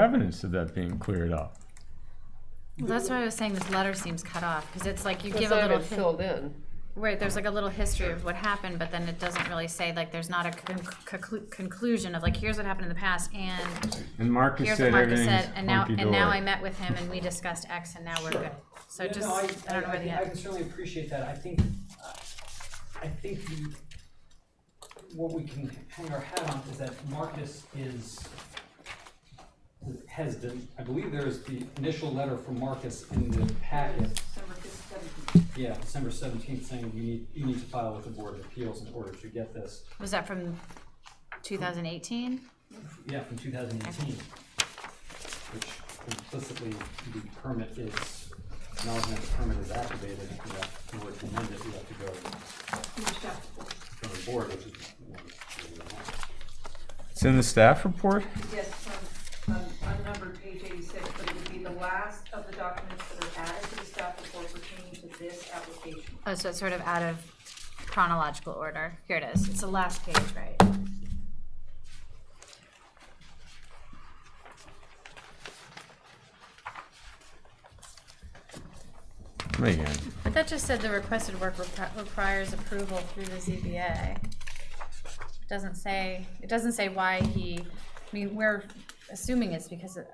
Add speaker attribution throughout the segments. Speaker 1: evidence of that being cleared up.
Speaker 2: Well, that's why I was saying this letter seems cut off, because it's like you
Speaker 3: It's
Speaker 2: give a
Speaker 3: not
Speaker 2: little,
Speaker 3: even
Speaker 2: hi-
Speaker 3: filled in.
Speaker 2: right, there's like a little history of what happened, but then it doesn't really say, like, there's not a con- conclu- conclusion of like, here's what happened in the past, and
Speaker 1: And Marcus
Speaker 2: here's
Speaker 1: said
Speaker 2: what Marcus
Speaker 1: everything's
Speaker 2: said, and now, and now I
Speaker 1: hunky-dory.
Speaker 2: met with him and we discussed X and now we're
Speaker 4: Sure.
Speaker 2: good. So
Speaker 4: Yeah,
Speaker 2: just,
Speaker 4: no,
Speaker 2: I don't know where the
Speaker 4: I
Speaker 2: end.
Speaker 4: can certainly appreciate that, I think, uh, I think the, what we can hang our hat on is that Marcus is, has been, I believe there is the initial letter from Marcus in the packet. Yeah, December seventeenth, saying you need, you need to file with the Board of Appeals in order to get this,
Speaker 2: Was that from two thousand eighteen?
Speaker 4: yeah, from two thousand eighteen. Which implicitly, the permit is, acknowledgement the permit is activated, you have, in order to amend it, you have to go from the board, which is.
Speaker 1: It's in the staff report?
Speaker 5: Yes, um, um, unnumbered page eighty-six, but it would be the last of the documents that are added to the staff report pertaining to this application.
Speaker 2: Oh, so it's sort of out of chronological order. Here it is. It's the last page, right?
Speaker 1: Man,
Speaker 2: But that just said the requested work repri- requires approval through the ZBA. Doesn't say, it doesn't say why he, I mean, we're assuming it's because of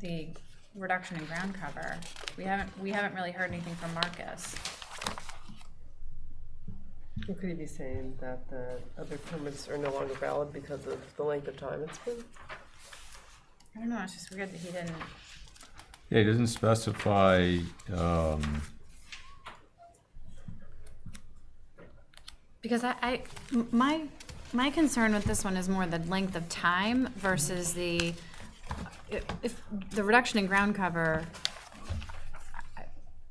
Speaker 2: the reduction in ground cover. We haven't, we haven't really heard anything from Marcus.
Speaker 3: Or Could he be saying that the other permits are no longer valid because of the length of time it's been?
Speaker 2: I don't know, it's just weird that he didn't,
Speaker 1: yeah, it doesn't specify, um,
Speaker 2: because I, I, m- my, my concern with this one is more the length of time versus the, i- if, the reduction in ground cover,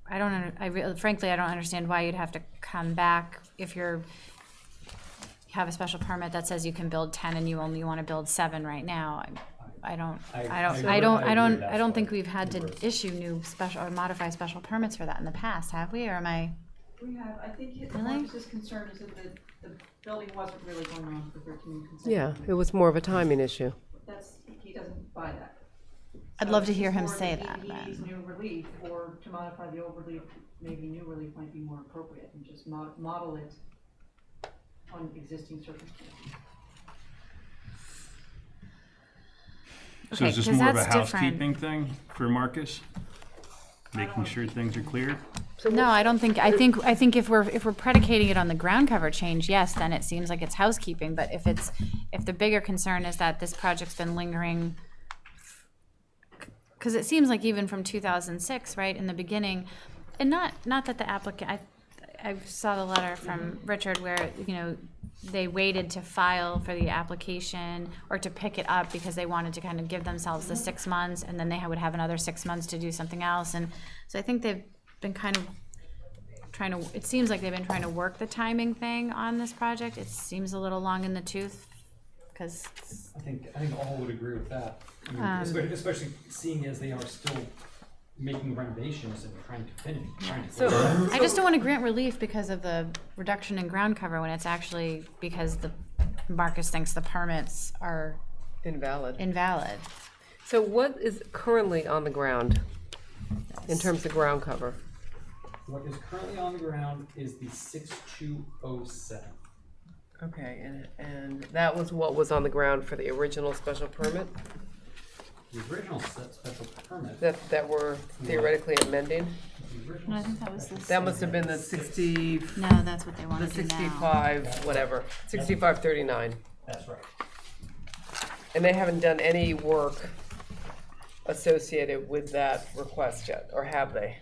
Speaker 2: I don't, under- I really, frankly, I don't understand why you'd have to come back if you're, you have a special permit that says you can build ten and you only wanna build seven right now. I- I don't, I
Speaker 4: I-
Speaker 2: don't,
Speaker 4: I
Speaker 2: I don't,
Speaker 4: agree
Speaker 2: I
Speaker 4: with
Speaker 2: don't,
Speaker 4: that
Speaker 2: I don't
Speaker 4: part.
Speaker 2: think we've had to
Speaker 4: Congress.
Speaker 2: issue new special, or modify special permits for that in the past, have we, or am I?
Speaker 5: We have, I think his,
Speaker 2: Really?
Speaker 5: Marcus's concern is that the, the building wasn't really going on for their community consent.
Speaker 3: Yeah, it was more of a timing issue.
Speaker 5: That's, he doesn't buy that.
Speaker 2: I'd
Speaker 5: So
Speaker 2: love to
Speaker 5: it's
Speaker 2: hear him
Speaker 5: more
Speaker 2: say
Speaker 5: he-
Speaker 2: that,
Speaker 5: He needs
Speaker 2: then.
Speaker 5: new relief, or to modify the old relief, maybe new relief might be more appropriate, and just mo- model it on existing circumstances.
Speaker 6: So
Speaker 2: Okay,
Speaker 6: is this
Speaker 2: 'cause
Speaker 6: more of a
Speaker 2: that's different.
Speaker 6: housekeeping thing for Marcus? Making sure things are clear?
Speaker 2: No, I don't think, I think, I think if we're, if we're predicating it on the ground cover change, yes, then it seems like it's housekeeping, but if it's, if the bigger concern is that this project's been lingering, because it seems like even from two thousand six, right, in the beginning, and not, not that the applicant, I, I saw the letter from Richard where, you know, they waited to file for the application or to pick it up because they wanted to kind of give themselves the six months, and then they would have another six months to do something else, and so I think they've been kind of trying to, it seems like they've been trying to work the timing thing on this project. It seems a little long in the tooth, because,
Speaker 4: I think, I think all would agree with that, I mean,
Speaker 2: Um,
Speaker 4: espe- especially seeing as they are still making renovations and trying to finish, trying to.
Speaker 3: So,
Speaker 2: I just don't want to grant relief because of the reduction in ground cover when it's actually because the, Marcus thinks the permits are
Speaker 3: invalid.
Speaker 2: invalid.
Speaker 3: So what is currently on the ground in terms of ground cover?
Speaker 4: What is currently on the ground is the six two oh seven.
Speaker 3: Okay, and, and that was what was on the ground for the original special permit
Speaker 4: The original se- special permit, the
Speaker 3: that, that we're theoretically amending?
Speaker 2: No, I
Speaker 4: original.
Speaker 2: think that was this.
Speaker 3: That must have been the sixty,
Speaker 2: No, that's what they
Speaker 3: the
Speaker 2: want to do now.
Speaker 3: sixty-five, whatever, sixty-five thirty-nine.
Speaker 4: That's right.
Speaker 3: And they haven't done any work associated with that request yet, or have they?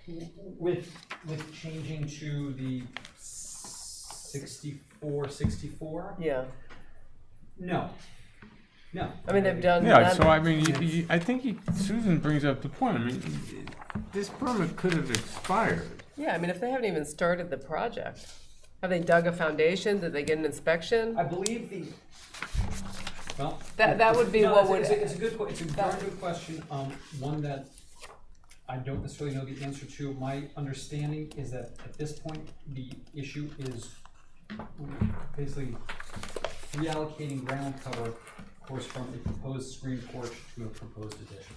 Speaker 4: With, with changing to the sixty-four, sixty-four?
Speaker 3: Yeah,
Speaker 4: No, no.
Speaker 3: I mean, they've done.
Speaker 1: yeah,
Speaker 3: none-
Speaker 1: so I mean, you- you- I think you- Susan brings up the point, I mean, this permit could have expired.
Speaker 3: Yeah, I mean, if they haven't even started the project, have they dug a foundation? Did they get an inspection?
Speaker 4: I believe the, well.
Speaker 3: That- that would be
Speaker 4: No,
Speaker 3: what
Speaker 4: it's a-
Speaker 3: would-
Speaker 4: It's a, it's a good, que- it's a very
Speaker 3: that-
Speaker 4: good question, um, one that I don't necessarily know the answer to. My understanding is that at this point, the issue is basically reallocating ground cover course, from a proposed screen porch to a proposed addition.